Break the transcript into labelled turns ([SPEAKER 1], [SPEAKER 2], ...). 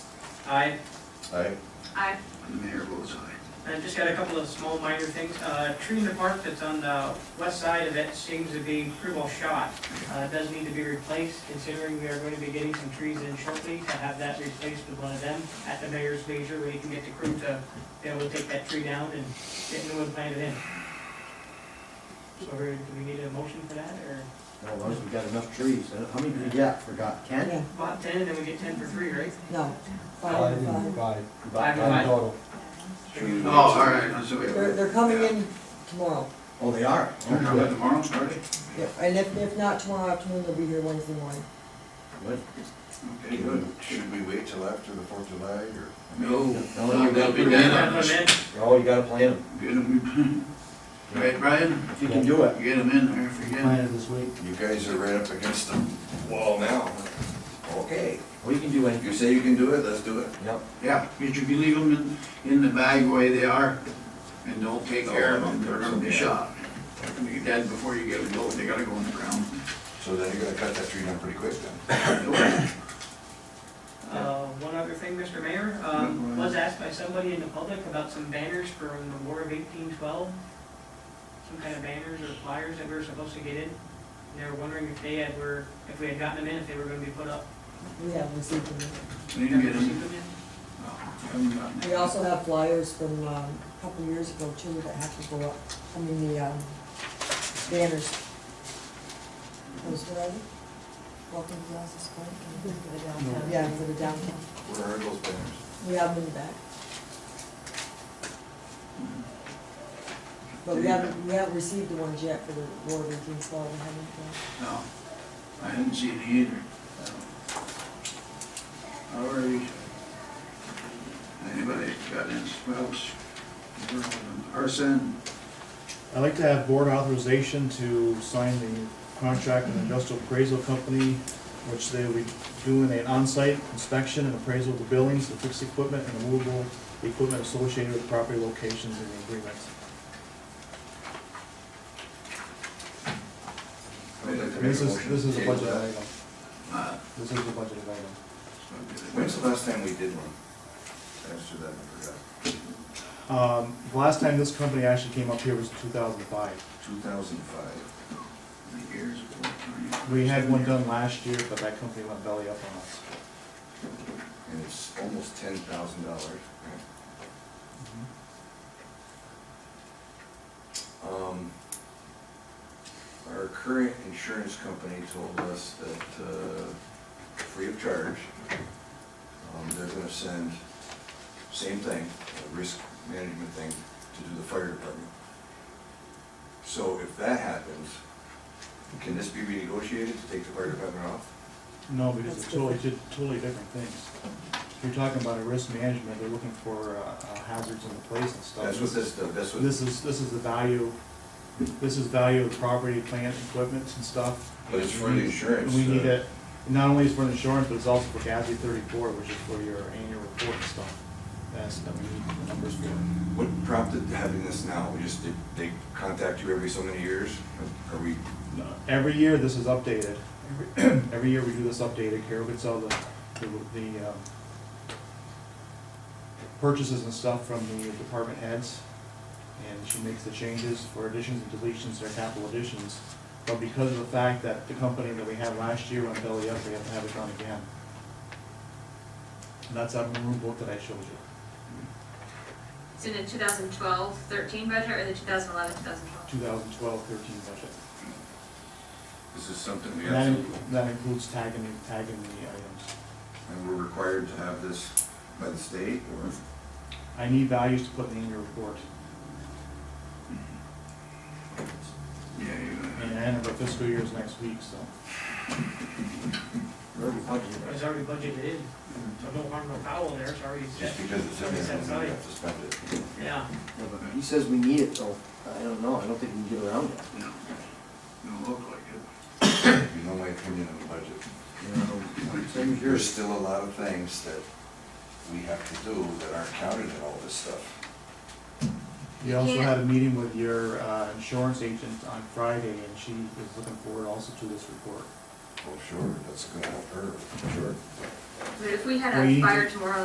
[SPEAKER 1] Aye.
[SPEAKER 2] Aye.
[SPEAKER 3] Aye.
[SPEAKER 4] And the mayor votes aye.
[SPEAKER 1] I just got a couple of small minor things. Uh, Tree in the park that's on the west side of it seems to be pretty well shot. Uh, It does need to be replaced, considering we are going to be getting some trees in shortly to have that replaced with one of them at the mayor's leisure, where you can get the crew to be able to take that tree down and get new one planted in. So we- do we need a motion for that, or?
[SPEAKER 2] Well, as long as we've got enough trees, Uh, how many do we got, forgot, ten?
[SPEAKER 5] Yeah,
[SPEAKER 1] Bought ten, and then we get ten for free, right?
[SPEAKER 5] no,
[SPEAKER 6] Five,
[SPEAKER 5] five, five.
[SPEAKER 6] five,
[SPEAKER 1] Five and
[SPEAKER 6] five
[SPEAKER 1] five.
[SPEAKER 6] total.
[SPEAKER 4] Oh, all right, I'm sorry.
[SPEAKER 5] They're, they're coming in tomorrow,
[SPEAKER 2] Oh, they are? Oh,
[SPEAKER 4] They're coming
[SPEAKER 2] good.
[SPEAKER 4] tomorrow, are they?
[SPEAKER 5] Yeah, and if, if not tomorrow afternoon, they'll be here Wednesday morning.
[SPEAKER 2] Good.
[SPEAKER 4] Okay, good.
[SPEAKER 2] Should we wait till after the Fourth of July or?
[SPEAKER 4] No,
[SPEAKER 2] No, you
[SPEAKER 4] they'll
[SPEAKER 2] gotta
[SPEAKER 4] be
[SPEAKER 2] put them in.
[SPEAKER 4] dead
[SPEAKER 1] Grab
[SPEAKER 4] on
[SPEAKER 1] them
[SPEAKER 4] us.
[SPEAKER 1] in.
[SPEAKER 2] Oh, you gotta plan them.
[SPEAKER 4] Get them, right, Brian?
[SPEAKER 2] If you can do it.
[SPEAKER 4] Get them in there if you can.
[SPEAKER 6] Planned this week.
[SPEAKER 7] You guys are right up against the wall now. Okay,
[SPEAKER 2] We can do
[SPEAKER 7] if you
[SPEAKER 2] anything.
[SPEAKER 7] say you can do it, let's do it.
[SPEAKER 2] Yep.
[SPEAKER 4] Yeah, but you can leave them in, in the bag the way they are and don't take care of them. They're gonna be shot. They're gonna be dead before you get them built. They gotta go in the ground.
[SPEAKER 7] So then you're gonna cut that tree down pretty quick then.
[SPEAKER 1] Uh, One other thing, Mr. Mayor, um, was asked by somebody in the public about some banners from the War of eighteen twelve. Some kind of banners or flyers that we were supposed to get in. And They were wondering if they had, were, if we had gotten them in, if they were gonna be put up.
[SPEAKER 5] We have received them.
[SPEAKER 4] They didn't get
[SPEAKER 1] Have you
[SPEAKER 4] them.
[SPEAKER 1] received
[SPEAKER 4] No, haven't gotten
[SPEAKER 5] We also have flyers from, um, a couple years ago too that have to go up, I mean, the, um, banners. Posted already? Welcome to Glasses Point. Yeah, for the downtown.
[SPEAKER 7] Where are those banners?
[SPEAKER 5] We have them in the back. But we haven't, we haven't received the ones yet for the War of eighteen twelve, we haven't. uh,
[SPEAKER 4] No, I hadn't seen it either. All right. Anybody got any spouse? Arson?
[SPEAKER 8] I'd like to have board authorization to sign the contract with industrial appraisal company, which they will be doing an on-site inspection and appraisal of the buildings, the fixed equipment, and the movable equipment associated with property locations in the agreement.
[SPEAKER 7] I'd like to make a
[SPEAKER 8] This is,
[SPEAKER 7] motion
[SPEAKER 8] this is a
[SPEAKER 7] to table
[SPEAKER 8] budget
[SPEAKER 7] that.
[SPEAKER 8] item.
[SPEAKER 4] Uh,
[SPEAKER 8] This is a budget item.
[SPEAKER 7] When's the last time we did one? After that, I forgot.
[SPEAKER 8] Um, the last time this company actually came up here was two thousand five.
[SPEAKER 7] Two thousand five.
[SPEAKER 4] Years ago, twenty-
[SPEAKER 8] We had one done last year, but that company went belly up on us.
[SPEAKER 7] And it's almost ten thousand dollars. Um, Our current insurance company told us that, uh, free of charge, um, they're gonna send, same thing, a risk management thing, to do the fire department. So if that happens, can this be renegotiated to take the fire department off?
[SPEAKER 8] No, because it's
[SPEAKER 5] That's
[SPEAKER 8] totally, two totally different things. If you're talking about a risk management, they're looking for uh, uh, hazards in the place and stuff.
[SPEAKER 7] That's what this, that's what,
[SPEAKER 8] This is, this is the value, this is value of property, plant, equipment and stuff.
[SPEAKER 7] but it's for the insurance.
[SPEAKER 8] And we need
[SPEAKER 7] uh,
[SPEAKER 8] it, not only is for the insurance, but it's also for GASB thirty-four, which is for your annual report and stuff. That's, that we need the numbers for.
[SPEAKER 7] What prompted having this now? We just, did they contact you every so many years? Are we,
[SPEAKER 8] Every year, this is updated. Every- Every year, we do this updated, Carol gets all the, the, the, um, purchases and stuff from the department heads, and she makes the changes for additions and deletions, their capital additions. But because of the fact that the company that we had last year went belly up, we have to have it done again. And that's that maroon book that I showed you,
[SPEAKER 3] It's in the 2012, 13 budget or the 2011, 2012?
[SPEAKER 8] 2012-13 budget.
[SPEAKER 7] this is something we
[SPEAKER 8] And that,
[SPEAKER 7] absolutely,
[SPEAKER 8] in- that includes tagging, tagging the items.
[SPEAKER 7] and we're required to have this by the state or?
[SPEAKER 8] I need values to put in the annual report.
[SPEAKER 4] Yeah, you-
[SPEAKER 8] And the end of our fiscal year is next week, so.
[SPEAKER 1] it? It's already budgeted in, so no harm, no foul there, it's already set.
[SPEAKER 7] Just because it's in there, doesn't mean we have to spend it.
[SPEAKER 1] Yeah,
[SPEAKER 2] Yeah, but He says we need it, so I don't know, I don't think we can get around it.
[SPEAKER 4] no, don't look like it.
[SPEAKER 7] You know my opinion on the budget.
[SPEAKER 2] You know, Same as
[SPEAKER 7] There's
[SPEAKER 2] yours.
[SPEAKER 7] still a lot of things that we have to do that aren't counted in all this stuff.
[SPEAKER 8] You also had a meeting with your uh, insurance agent on Friday, and she is looking forward also to this report.
[SPEAKER 7] Oh, Well, sure, that's gonna help her, sure.
[SPEAKER 3] But if we had a
[SPEAKER 8] We-
[SPEAKER 3] fire tomorrow,